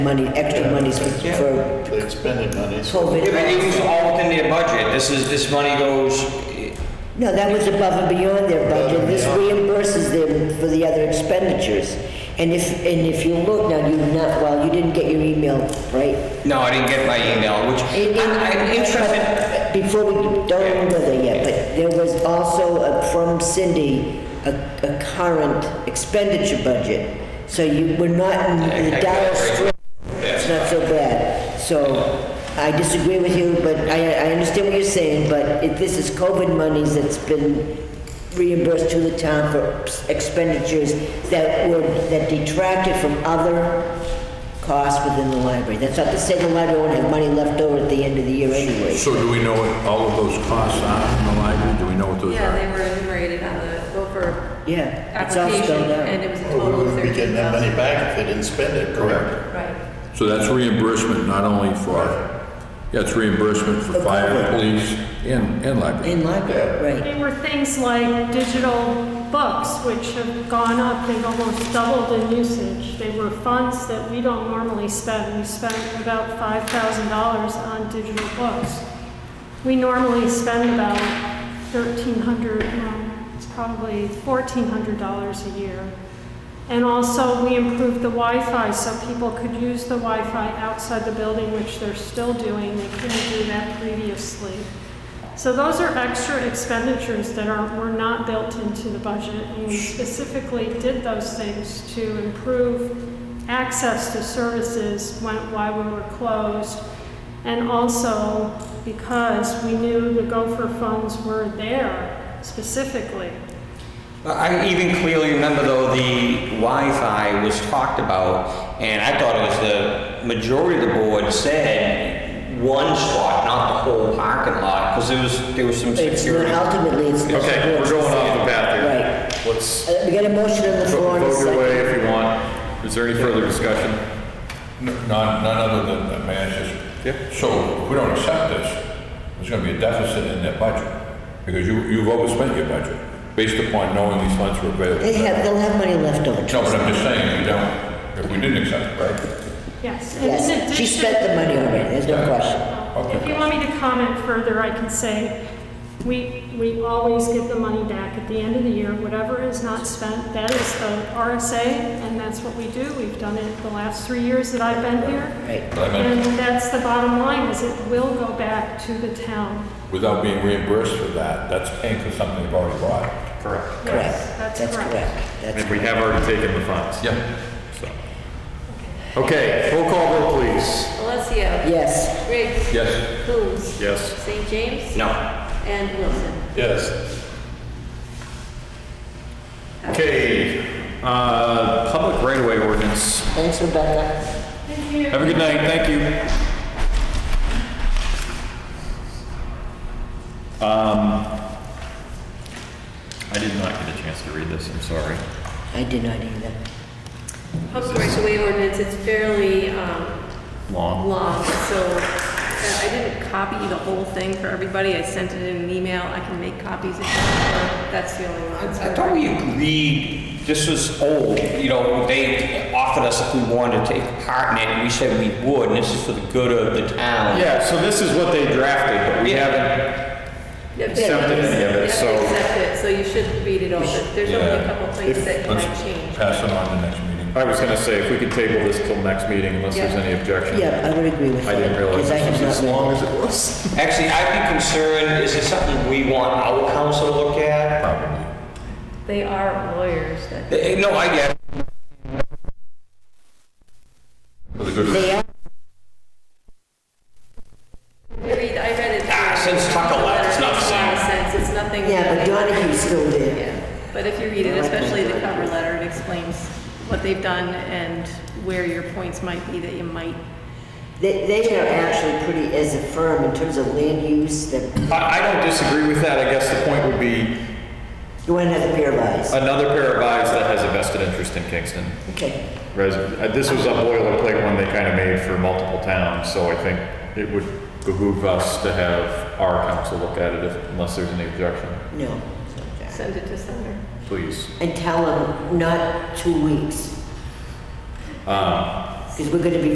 money, extra monies for, for They expended money, so COVID. It it was all within their budget. This is, this money goes, No, that was above and beyond their budget, this reimburses them for the other expenditures. And if, and if you look now, you not, well, you didn't get your email, right? no, I didn't get my email, which It- it- I- I'm interested. but Before we, don't remember that yet, but there was also a- from Cindy, a, a current expenditure budget. So you, we're not in the dire straits, it's not so bad. So I disagree with you, but I, I understand what you're saying, but if this is COVID monies that's been reimbursed to the town for expenditures that were, that detracted from other costs within the library. That's not to say the library won't have money left over at the end of the year anyway. So do we know what all of those costs are in the library? Do we know what those Yeah, are? they were enumerated on the Gopher Yeah, it's all application, spelled and out. it was a Oh, we total of wouldn't be thirteen getting that money thousand. back if they didn't spend it, correct? Right, So that's reimbursement not only for, yeah, it's reimbursement for fire, police, and, and library. In library, right. They were things like digital books, which have gone up, they've almost doubled in usage. They were funds that we don't normally spend. We spent about $5,000 on digital books. We normally spend about $1,300, well, it's probably $1,400 a year. And also, we improved the Wi-Fi so people could use the Wi-Fi outside the building, which they're still doing. They couldn't do that previously. So those are extra expenditures that are, were not built into the budget. And we specifically did those things to improve access to services when, while we were closed. And also because we knew the Gopher funds were there specifically. I even clearly remember though, the Wi-Fi was talked about, and I thought it was the majority of the board said one spot, not the whole parking lot, because there was, there was some It's not, security. ultimately, it's. Okay, we're going off the path here. Right. What's, Uh, We got a motion on the floor. Vote and a vote your way second. if you want. Is there any further discussion? None, none other than the manager's. So if we don't accept this, there's gonna be a deficit in their budget, because you, you've overspent your budget, based upon knowing these funds were available. They have, they'll have money left over. No, but I'm just saying, if we don't, if we didn't accept it, right? Yes. and in Yes, she addition- spent the money already, there's no question. If you want me to comment further, I can say, we, we always give the money back at the end of the year, whatever is not spent, that is the RSA, and that's what we do, we've done it the last three years that I've been here. Right. But I meant- And that's the bottom line, is it will go back to the town. without being reimbursed for that, that's paying for something you've already bought. Correct. Yes, Correct, that's correct. That's And we have already taken the funds. Yeah. Okay, roll call vote, please. Alessio. Yes, Riggs. Yes. Coombs. Yes. St. James. No, And Wilson. yes, Okay, uh, public right-of-way ordinance. thanks Rebecca. Thank you. Have a good night, thank you. Um, I did not get a chance to read this, I'm sorry. I did not either. Public rights of way ordinance, it's fairly, um, Long. long, so uh, I didn't copy the whole thing for everybody. I sent it in an email. I can make copies if you want. That's the only I one. I thought we agreed, this was old, you know, they offered us if we wanted to take part in it, and we said we would, and this is for the good of the town. Yeah, so this is what they drafted, but we haven't, You have to- Accepted any of it, you have to so- accept it, so you should read it over. There's only a couple places that you might change. Pass them on to next meeting. I was gonna say, if we could table this till next meeting unless there's any objection. Yeah, I would agree with that. I didn't realize because I this have was as not read long it. as it was. Actually, I'd be concerned, is it something we want our council to look at? Probably. They are lawyers that Eh, eh, No, I get it. For the good of the They are, I read, I read it. Ah, since Tucker left, it's not the same. Makes a lot of sense, it's nothing. yeah, but Donahue's still there. Yeah, but if you read it, especially the cover letter, it explains what they've done and where your points might be that you might. They, they are actually pretty, as a firm, in terms of land use, that I, I don't disagree with that, I guess the point would be you want to have a pair of eyes. another pair of eyes that has a vested interest in Kingston. Okay. Res- uh, This was a boilerplate one they kind of made for multiple towns, so I think it would behoove us to have our council look at it if- unless there's any objection, No. Send it to Sumner. please. Um, And tell them not two weeks. Because we're going to be